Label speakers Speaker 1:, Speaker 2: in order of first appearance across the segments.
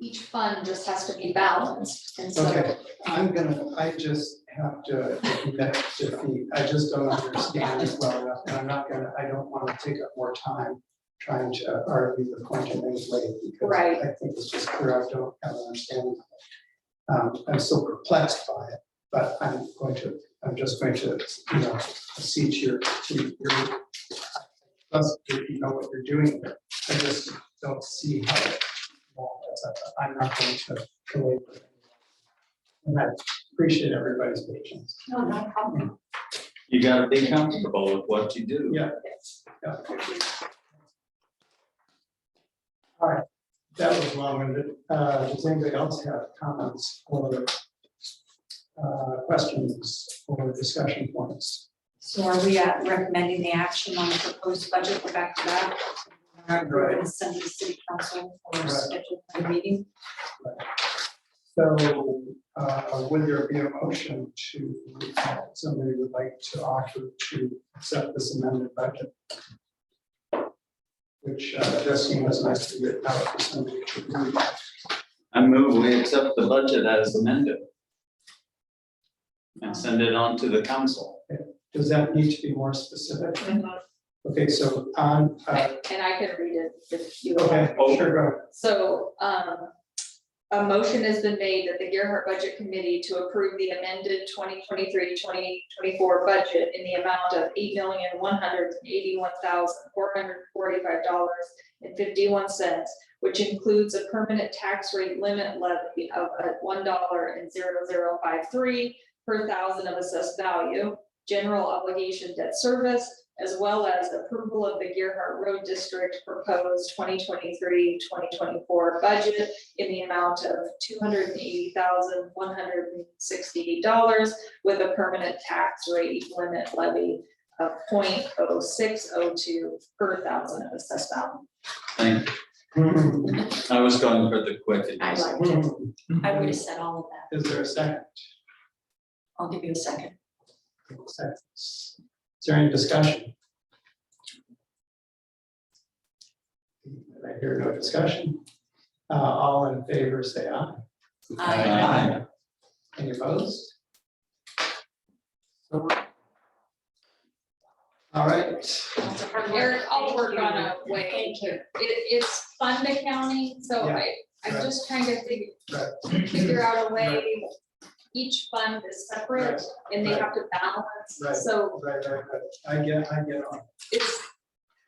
Speaker 1: each fund just has to be balanced, and so,
Speaker 2: Okay, I'm gonna, I just have to admit defeat, I just don't understand it well enough, and I'm not gonna, I don't wanna take up more time trying to argue the point in any way, because
Speaker 1: Right.
Speaker 2: I think it's just clear I don't have an understanding of it. Um, I'm still perplexed by it, but I'm going to, I'm just going to, you know, accede to your, to your plus, if you know what you're doing, there. I just don't see how it, well, that's up to- I'm not going to belabor it. And I appreciate everybody's patience.
Speaker 1: no, no problem.
Speaker 3: You gotta be comfortable with what you do.
Speaker 2: Yeah. Yeah. All right, that was long-winded. Uh, Does anybody else have comments or uh, questions or discussion points?
Speaker 4: So are we uh, recommending the action on the proposed budget? We're back to that. We're going to send to the city council
Speaker 2: Right.
Speaker 4: for schedule for the meeting.
Speaker 2: So uh, would there be a motion to, uh, somebody would like to offer to accept this amended budget? Which uh, just seems nice to get out for somebody to read.
Speaker 3: I move we accept the budget as amended. And send it on to the council.
Speaker 2: Does that need to be more specific? Okay, so on, uh,
Speaker 1: And I can read it if you want.
Speaker 2: okay, sure, go ahead.
Speaker 1: So, um, a motion has been made that the Gearhart Budget Committee to approve the amended 2023-2024 budget in the amount of eight million, one hundred and eighty-one thousand, four hundred and forty-five dollars and fifty-one cents, which includes a permanent tax rate limit levy of uh, one dollar and zero zero five three per thousand of assessed value, general obligation debt service, as well as approval of the Gearhart Road District proposed 2023-2024 budget in the amount of two hundred and eighty thousand, one hundred and sixty-eight dollars with a permanent tax rate limit levy of 0.0602 per thousand of assessed value.
Speaker 3: Thank, I was going for the quick and
Speaker 4: I
Speaker 3: easy.
Speaker 4: like it. I would have said all of that.
Speaker 2: Is there a second?
Speaker 4: I'll give you a second.
Speaker 2: Second. Is there any discussion? I hear no discussion. Uh, all in favor, say aye.
Speaker 4: Uh,
Speaker 3: Aye.
Speaker 2: Any opposed? All right,
Speaker 4: That's a hard one.
Speaker 1: Eric, I'll work on a way.
Speaker 4: Thank you.
Speaker 1: It, it's fund accounting, so
Speaker 2: Yeah,
Speaker 1: I, I'm
Speaker 2: right.
Speaker 1: just trying to figure,
Speaker 2: Right.
Speaker 1: figure out a way. Each fund is separate and they
Speaker 2: Right.
Speaker 1: have to
Speaker 2: Right.
Speaker 1: balance, so
Speaker 2: right, right, right. I get, I get on.
Speaker 1: it's,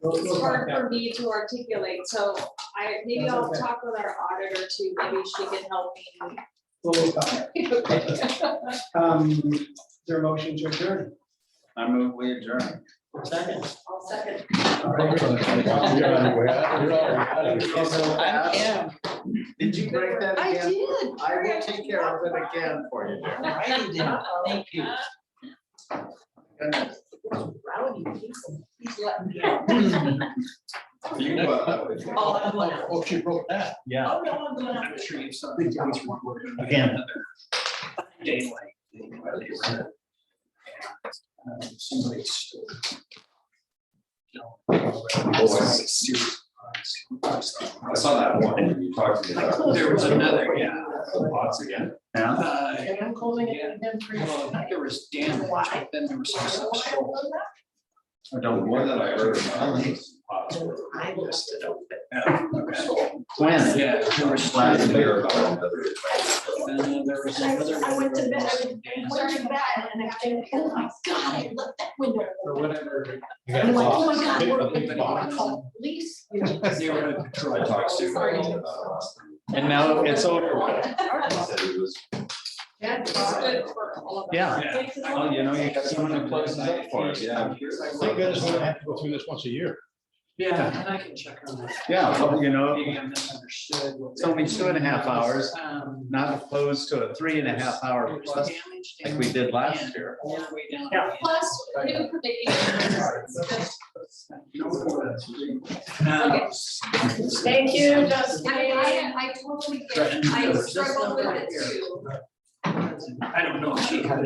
Speaker 2: We'll-
Speaker 1: it's
Speaker 2: we'll talk
Speaker 1: hard
Speaker 2: about
Speaker 1: for me to articulate, so I, maybe
Speaker 2: That's
Speaker 1: I'll
Speaker 2: okay.
Speaker 1: talk with our auditor too, maybe she can help
Speaker 2: We'll talk about
Speaker 1: me.
Speaker 2: Okay. it. Um, is there a motion to adjourn?
Speaker 3: I move we adjourn.
Speaker 2: Second.
Speaker 4: I'll second.
Speaker 2: All right.
Speaker 3: Did you break that
Speaker 1: I
Speaker 3: again?
Speaker 1: did.
Speaker 3: I will take care of it again for you, dear.
Speaker 4: Thank
Speaker 3: you.
Speaker 4: Rowdy people. Please let me.
Speaker 3: You can go out that way.
Speaker 4: Oh, I'm going out.
Speaker 5: Oh, she wrote that. Yeah.
Speaker 4: Oh, no, I'm going out.
Speaker 5: Again. Somebody stole.
Speaker 3: I saw that one when you talked to me about.
Speaker 5: There was another, yeah.
Speaker 3: The bots again.
Speaker 5: Uh,
Speaker 3: Yeah.
Speaker 5: And I'm calling it again for you. There was damage, but then there was also sold.
Speaker 3: I don't, know that I heard. about it.
Speaker 5: I listed out.
Speaker 3: When?
Speaker 5: Yeah. there was-
Speaker 3: Last
Speaker 5: And
Speaker 3: year about another.
Speaker 5: then there was another.
Speaker 6: I went to bed, I was
Speaker 5: Sorry.
Speaker 6: wearing that, and I think, oh my god, I left that window.
Speaker 2: Or whatever.
Speaker 6: I'm like, oh my god, we're
Speaker 5: Big
Speaker 6: gonna
Speaker 5: box.
Speaker 6: call the police.
Speaker 5: Neighborhood
Speaker 3: I
Speaker 5: patrol.
Speaker 3: talked to.
Speaker 6: Sorry.
Speaker 3: him about
Speaker 7: And now it's over. with.
Speaker 3: it. He said he was
Speaker 1: Good for all of us.
Speaker 7: Yeah.
Speaker 5: Yeah.
Speaker 3: Well, you know, you got someone who closes up for us, yeah.
Speaker 7: Thank goodness we don't have to go through this once a year.
Speaker 5: Yeah, and I can check on that.
Speaker 7: Yeah, well, you know,
Speaker 5: Maybe I misunderstood. what
Speaker 7: It's only two and a half hours.
Speaker 5: Um,
Speaker 7: not opposed to a three and a half
Speaker 5: it
Speaker 7: hour
Speaker 5: was
Speaker 7: plus
Speaker 5: damaged
Speaker 7: like we did last year.
Speaker 5: all the way down.
Speaker 1: Plus, new predictions.
Speaker 5: Um,
Speaker 6: Thank you, Justin.
Speaker 1: I, I, I totally get, it. I struggled with it too.
Speaker 5: I don't know if she had